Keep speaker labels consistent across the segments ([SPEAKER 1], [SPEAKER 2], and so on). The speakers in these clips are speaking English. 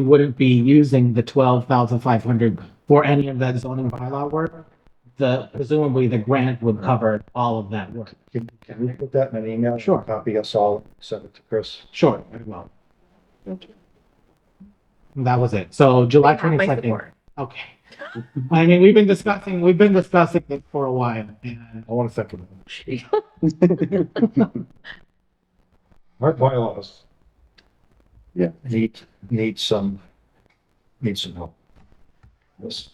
[SPEAKER 1] we wouldn't be using the twelve thousand five hundred for any of that zoning bylaw work. The, presumably the grant would cover all of that work.
[SPEAKER 2] Can, can we put that in an email?
[SPEAKER 1] Sure.
[SPEAKER 2] Copy us all, send it to Chris.
[SPEAKER 1] Sure, very well. That was it. So July
[SPEAKER 3] Yeah, my
[SPEAKER 1] twenty-second.
[SPEAKER 3] support.
[SPEAKER 1] Okay. I mean, we've been discussing, we've been discussing it for a while and
[SPEAKER 2] I want to second. Our bylaws. Yeah. Need, need some, need some help. Yes.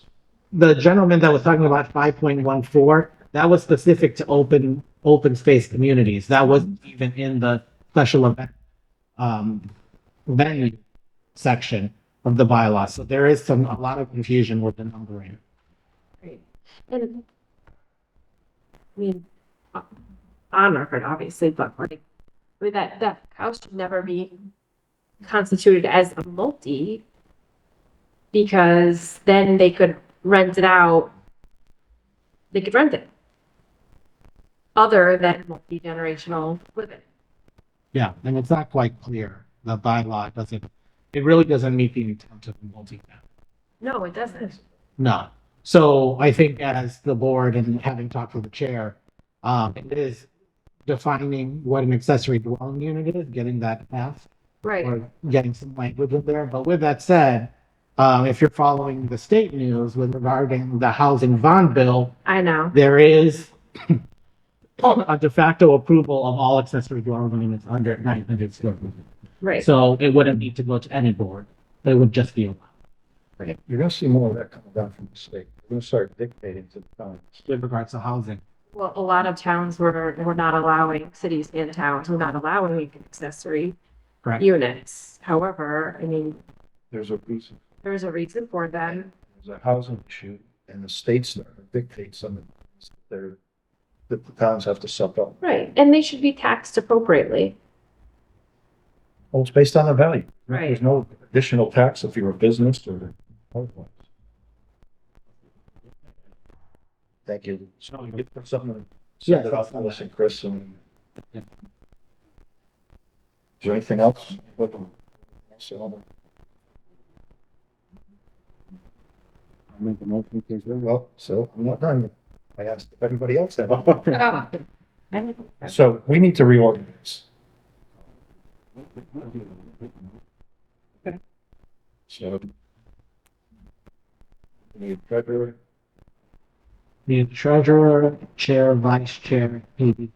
[SPEAKER 1] the gentleman that was talking about five point one four, that was specific to open, open space communities. That wasn't even in the special event, um, venue section of the bylaw. So there is some, a lot of confusion with the numbering.
[SPEAKER 3] Great. And, I mean, o- on record, obviously, but like, I mean, that, that house should never be constituted as a multi because then they could rent it out. They could rent it. Other than multi-generational living.
[SPEAKER 1] Yeah, and it's not quite clear. The bylaw doesn't, it really doesn't meet the intent of the multi-family.
[SPEAKER 3] No, it doesn't.
[SPEAKER 1] No. So I think as the board and having talked with the chair, um, it is defining what an accessory dwelling unit is, getting that passed
[SPEAKER 3] Right.
[SPEAKER 1] or getting some language in there. But with that said, um, if you're following the state news with regarding the housing bond bill,
[SPEAKER 3] I know.
[SPEAKER 1] there is a de facto approval of all accessory dwelling units under nine hundred square feet.
[SPEAKER 3] Right.
[SPEAKER 1] So it wouldn't need to go to any board. It would just be allowed.
[SPEAKER 2] You're gonna see more of that coming down from the state. We're gonna start dictating to the towns.
[SPEAKER 1] with regards to housing.
[SPEAKER 3] Well, a lot of towns were, were not allowing, cities and towns were not allowing accessory
[SPEAKER 1] Correct.
[SPEAKER 3] units. However, I mean,
[SPEAKER 2] There's a reason.
[SPEAKER 3] there's a reason for them.
[SPEAKER 2] There's a housing issue and the states dictate some of the things that they're, that the towns have to suck up.
[SPEAKER 3] Right, and they should be taxed appropriately.
[SPEAKER 2] Well, it's based on the value.
[SPEAKER 3] Right.
[SPEAKER 2] There's no additional tax if you're a business or otherwise. Thank you. So you get something. Send
[SPEAKER 1] Yes.
[SPEAKER 2] it off to us and Chris and.
[SPEAKER 1] Yeah.
[SPEAKER 2] Is there anything else? What- what's the other-
[SPEAKER 4] Make a motion, please.
[SPEAKER 2] Well, so I'm not done. yet. I asked if everybody else had.
[SPEAKER 3] Right,
[SPEAKER 2] So we need to reorganize. So. we Need treasurer.
[SPEAKER 1] The treasurer, chair, vice chair, PVP.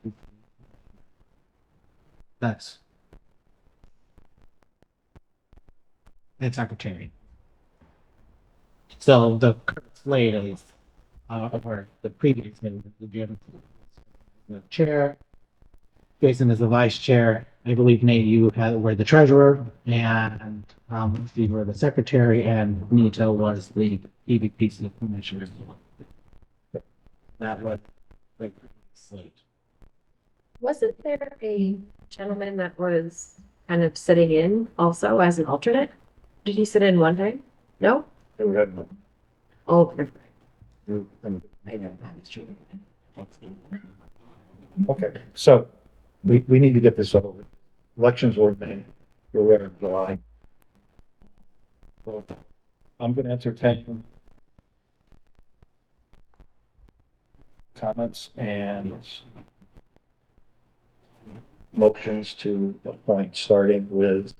[SPEAKER 1] That's. And secretary. So the current slate is, uh, or the previous, name was the Jim. The chair. Jason is the vice chair. I believe Nate, you had, were the treasurer and, um, Steve were the secretary and Nito was the PVPC commissioner that was like slate.
[SPEAKER 3] Wasn't there a gentleman that was kind of sitting in also as an alternate? Did he sit in one time? No?
[SPEAKER 2] They were having a-
[SPEAKER 3] Oh, never mind.
[SPEAKER 2] they were having
[SPEAKER 3] I know that was true.
[SPEAKER 2] a- Okay, so we, we need to get this over. Elections were made, we're ready in July. So, I'm gonna entertain comments and motions to appoint, starting with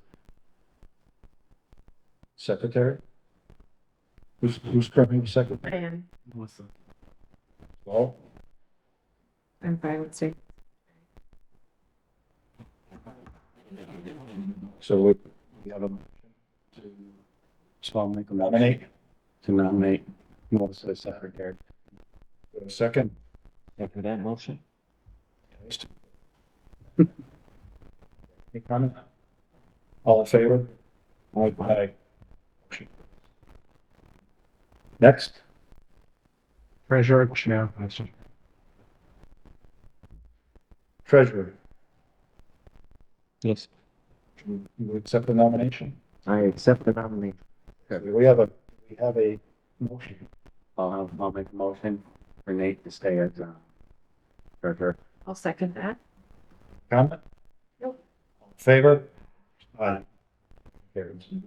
[SPEAKER 2] secretary. Who's, who's currently
[SPEAKER 3] I
[SPEAKER 2] secretary?
[SPEAKER 3] am,
[SPEAKER 1] Melissa.
[SPEAKER 2] Well,
[SPEAKER 3] I'm fine with saying.
[SPEAKER 2] so we we have a
[SPEAKER 4] So I'll make a motion
[SPEAKER 2] nominate.
[SPEAKER 4] to nominate Melissa as secretary.
[SPEAKER 2] We have a Second.
[SPEAKER 4] After that motion?
[SPEAKER 2] Any comment? All in favor? Aye. Next,
[SPEAKER 1] Treasurer, chair, vice chair.
[SPEAKER 2] treasurer,
[SPEAKER 4] Yes.
[SPEAKER 2] you you accept the nomination?
[SPEAKER 4] I accept the nomination.
[SPEAKER 2] We have a, we have a motion.
[SPEAKER 4] I'll, I'll make a motion for Nate to stay as, uh, treasurer.
[SPEAKER 3] I'll second that.
[SPEAKER 2] Comment?
[SPEAKER 3] Nope.
[SPEAKER 2] All in Favor? Aye. Carries.